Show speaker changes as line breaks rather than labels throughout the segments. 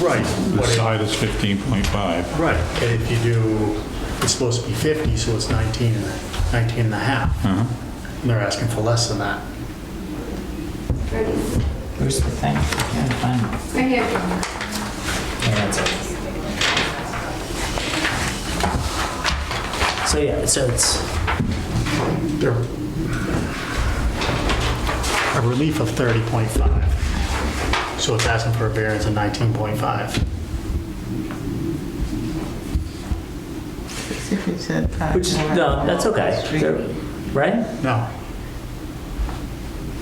Right.
The
but it-
side is 15.5.
Right, and if you do, it's supposed to be 50, so it's 19, and a- 19 and a half.
Uh-huh.
And they're asking for less than that.
Where's the thing? I can't find it.
Right here.
Yeah, that's it. So yeah, so it's,
They're a relief of 30.5. So it's asking for a variance of 19.5.
If you said five.
which is,
more.
no, that's okay, They're- right?
No.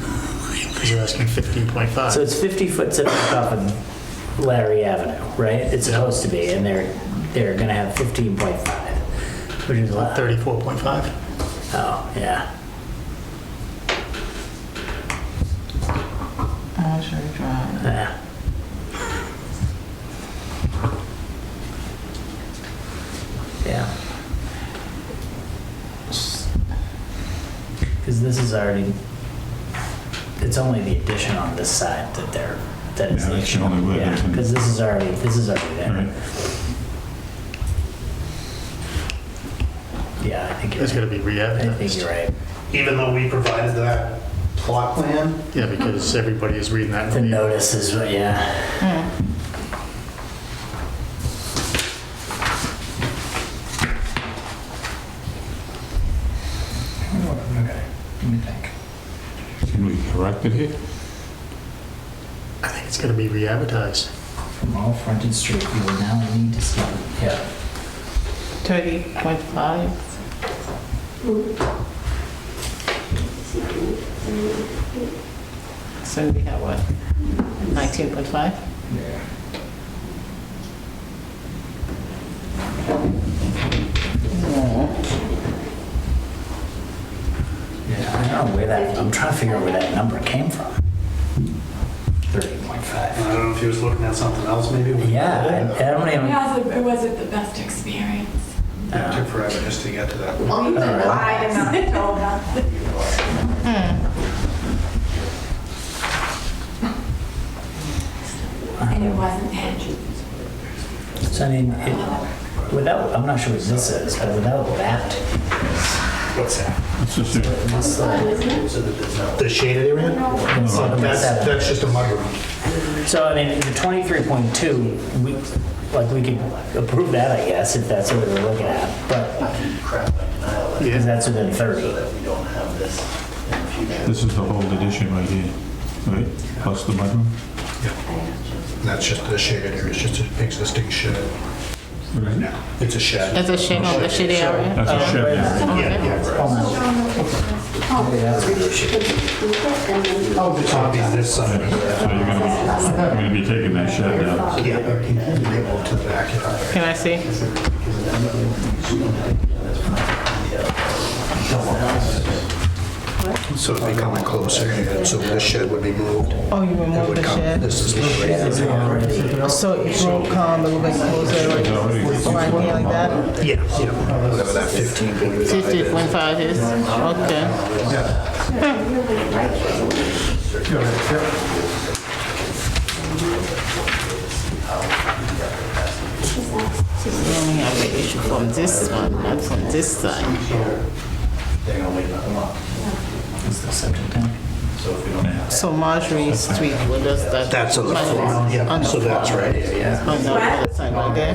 Because you're asking 15.5.
So it's 50 foot setback off of Larry Avenue, right? It's
Yeah.
supposed to be, and they're, they're gonna have 15.5, which is a lot.
34.5?
Oh, yeah.
Azure Drive.
yeah. Yeah. Because this is already, it's only the addition on this side that they're, that is
Yeah,
the
that's
issue.
the only way they can-
Because this is already, this is already
Right.
there. Yeah, I think you're,
It's
right.
gonna be
I think
re-advertised.
you're right.
even though we provided that plot plan,
Yeah, because everybody is reading that.
The notice is, what- yeah, okay, let me think.
Can we correct it here?
I think it's gonna be re-advertised.
From all fronted street, you will now need to see, yeah.
30.5. So we have what? 19.5?
Yeah, I don't know where that, I'm trying to figure out where that number came from. Thirty point
and
five.
I don't know if he was looking at something else maybe. with-
Yeah, I I don't even,
It wasn't, it wasn't the best experience.
It took forever just to get to that.
Well, you
Alright.
lied and not told us.
And it wasn't Andrew.
Uh-huh. so I mean, it, without, I'm not sure what this is, but without that,
What's that?
It's just a-
this, uh,
The shaded area?
this
But That's,
seven.
that's just a mudroom.
So I mean, the twenty-three point two, we, like, we could approve that, I guess, if that's what we're looking at, but, because that's within thirty.
This is the whole addition right here, right? Plus the mudroom?
That's just the shaded area, it's just an existing shed.
Right.
It's a shed.
That's a shade, on the shade area?
That's a shed area.
Yeah, yeah.
Oh, no. Maybe that's what it should be.
Oh, the top is this side.
So you're gonna, you're gonna be taking that shed down.
Yeah, okay, they go to the backyard.
Can I see?
So it'd be coming closer, so the shed would be moved.
Oh, you
It
removed
would
the
come-
shed?
This is the
So it will come a little bit closer,
It's already-
right here like that?
Yeah, yeah, whatever that 15.5 is.
50.5 is, okay. We only have the issue from this one, not from this side.
Is the septic tank?
So Marjorie Street, what does that?
That's on the front, yeah,
On the
so that's
front.
right, here, yeah.
On the other side, right there?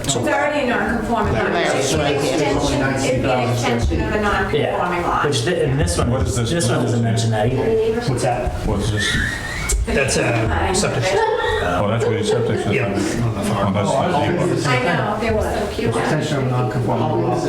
It's already a non-conforming lot.
Larry,
It's an
right there.
extension, it'd be an extension of a non-conforming
Yeah,
lot.
which, thi- and this one,
What is this?
this one doesn't mention that either.
What's that?
What's this?
That's a septic system.
Oh, that's where your septic system
Yeah.
is. Oh, that's the deep
I know, they were so cute.
Extension of non-conforming law. Our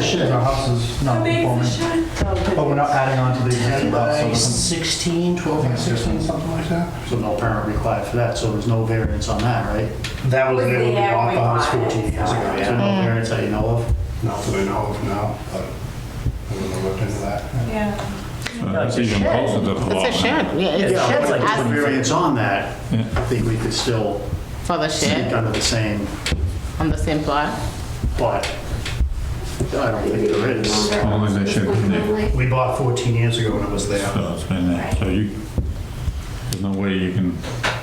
house is non-conforming, but we're not adding on to the existing lot, so it's-
16, 12.
it's just-
Something like that?
So no permit required for that, so there's no variance on that, right?
That was there when we
Yeah,
bought
we
the house
bought it.
14 years ago,
So
yeah.
no variance that you know of?
Not that I know of now, but I wouldn't have looked into that.
Yeah.
So Uh, That's even closer to the lot.
It's a shed, yeah, it's
Yeah,
a
if
shed,
there's no
I-
variance on that,
Yeah.
I think we could still
for the
speak
shed,
under the same,
on the same plot.
but I don't think there is.
Only they should be there.
We bought 14 years ago when it was there.
So it's been there. So you, there's no way you can